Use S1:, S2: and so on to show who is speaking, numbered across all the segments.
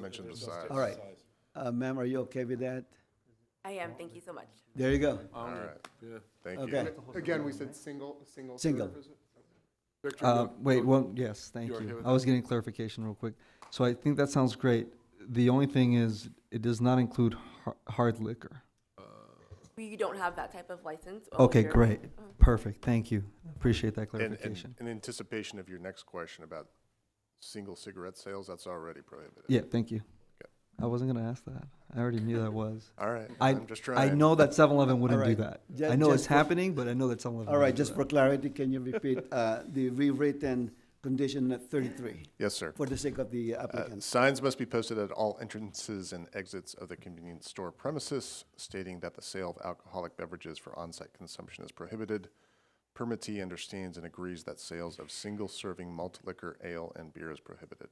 S1: mentioned the size.
S2: All right. Uh, ma'am, are you okay with that?
S3: I am, thank you so much.
S2: There you go.
S1: All right. Thank
S2: Okay.
S1: you.
S4: Again, we said single, single.
S2: Single.
S4: serve, is it?
S5: Uh, Wait, well, yes, thank
S1: okay
S5: you.
S1: with
S5: I was getting clarification real quick. So I think that sounds great. The only thing is, it does not include har- hard liquor.
S3: We don't have that type of license.
S2: Oh,
S3: only
S5: Okay,
S3: beer.
S5: great,
S2: Uh-huh.
S5: perfect, thank you. Appreciate that
S1: And- And
S5: clarification.
S1: in anticipation of your next question about single cigarette sales, that's already prohibited.
S5: Yeah, thank you. I wasn't gonna ask that. I already knew that was.
S1: All right,
S5: I-
S1: I'm just trying.
S5: I know that 7-Eleven wouldn't do
S2: right.
S5: that.
S2: Ju-
S5: I know
S2: just
S5: it's
S2: for-
S5: happening, but I know that 7-Eleven.
S2: All right,
S5: wouldn't do
S2: just for clarity, can you repeat, uh, the rewritten condition at thirty-three
S1: Yes, sir.
S2: for the sake of the
S1: Uh,
S2: applicants?
S1: Signs must be posted at all entrances and exits of the convenience store premises stating that the sale of alcoholic beverages for on-site consumption is prohibited. Permittee understands and agrees that sales of single-serving malt liquor, ale, and beer is prohibited.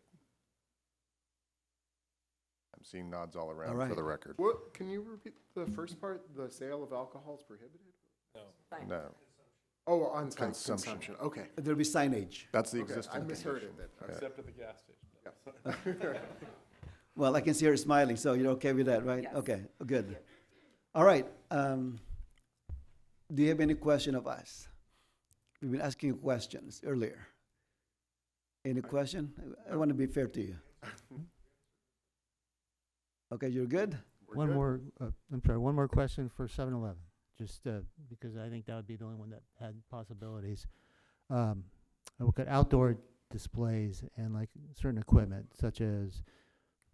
S1: I'm seeing nods all around for
S2: right.
S1: the record.
S4: What, can you repeat the first part? The sale of alcohol is prohibited?
S3: Fine.
S1: No,
S4: Oh, on-site
S1: Consumption.
S4: consumption, okay.
S2: There'll be signage.
S1: that's the
S4: Okay, I
S1: existing.
S4: misheard it then. Okay.
S6: Except at the gas station.
S2: Well, I can see her smiling, so you're okay with that, right?
S3: Yes.
S2: Okay, good. All right, um, do you have any question of us? We've been asking you questions earlier. Any question? I- I want to be fair to you. Okay, you're good?
S4: We're
S7: One
S4: good?
S7: more, uh, I'm sorry, one more question for 7-Eleven, just uh, because I think that would be the only one that had possibilities. Um, I look at outdoor displays and like certain equipment such as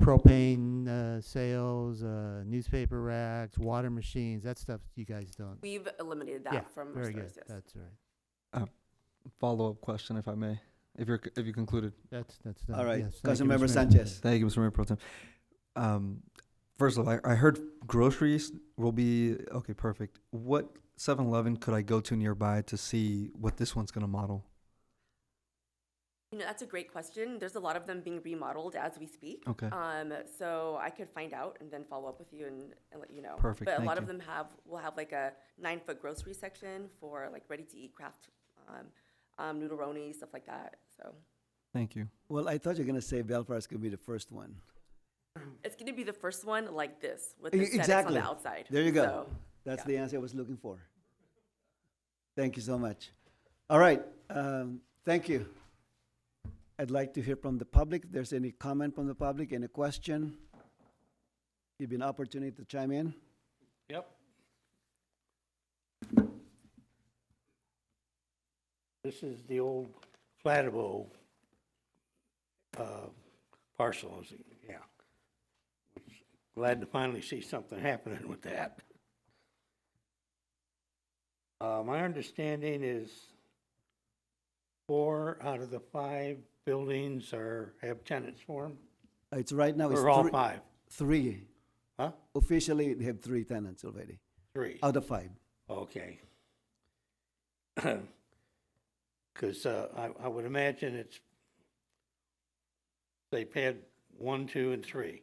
S7: propane uh, sales, uh, newspaper racks, water machines, that stuff you guys don't.
S3: We've eliminated
S7: Yeah,
S3: that from our
S7: Very
S3: stores,
S7: good,
S3: yes.
S7: that's all right.
S5: Follow-up question, if I may, if you're, if you concluded.
S7: That's, that's done.
S2: All right,
S7: Yes, thank you,
S2: Councilmember
S7: Mr. Mayor.
S2: Sanchez.
S5: Thank you, Mr. Mayor Pro Tem. Um, first of all, I, I heard groceries will be okay. Perfect. What 7-Eleven could I go to nearby to see what this one's gonna model?
S3: You know, that's a great question. There's a lot of them being remodeled as we speak.
S5: Okay.
S3: Um, so I could find out and then follow up with you and, and let you know.
S5: Perfect,
S3: But a
S5: thank
S3: lot of
S5: you.
S3: them have, will have like a nine-foot grocery section for like ready-to-eat craft, um, um, noodleroni, stuff like that, so.
S5: Thank you.
S2: Well, I thought you were gonna say Belfast could be the first one.
S3: It's gonna be the first one like this, with
S2: E-
S3: the aesthetics on
S2: exactly.
S3: the outside.
S2: There you go.
S3: So,
S2: That's
S3: Yeah.
S2: the answer I was looking for. Thank you so much. All right, um, thank you. I'd like to hear from the public. If there's any comment from the public, any question, give you an opportunity to chime in.
S6: Yep.
S8: This is the old Flatabo uh, parcel, is it? yeah. Glad to finally see something happening with that. Uh, My understanding is four uh, out of the five buildings are, have tenants for them,
S2: Uh, It's right now, it's
S8: or all
S2: three,
S8: five?
S2: three.
S8: Huh?
S2: Officially, they have three tenants already,
S8: Three?
S2: out of five.
S8: Okay. Because uh, I, I would imagine it's, they've had one, two, and three,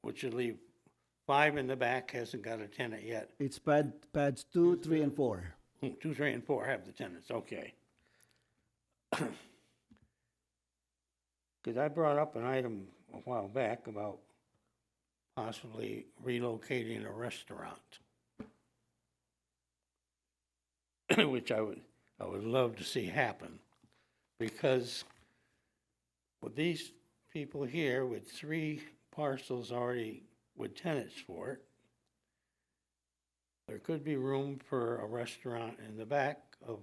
S8: which would leave five in the back hasn't got a tenant yet.
S2: It's pad, pads two, three, and four.
S8: Hmm, Two, three, and four have the tenants, okay. Because I brought up an item a while back about possibly relocating a restaurant. Which I would, I would love to see happen, because with these people here with three parcels already with tenants for it, there could be room for a restaurant in the back of,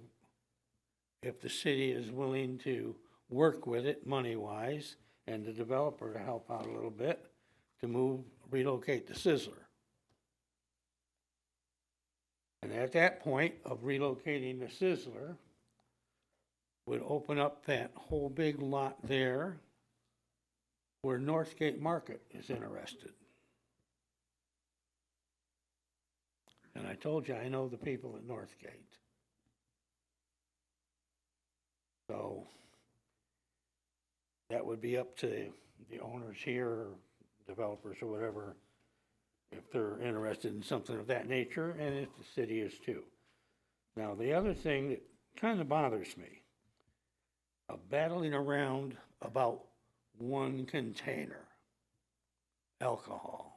S8: if the city is willing to work with it money-wise and the developer to help out a little bit, to move, relocate the Sizzler. And at that point of relocating the Sizzler, would open up that whole big lot there where Northgate Market is interested. And I told you, I know the people at Northgate. So that would be up to the owners here, or developers or whatever, if they're interested in something of that nature, and if the city is too. Now, the other thing that kind of bothers me, of battling around about one container. alcohol.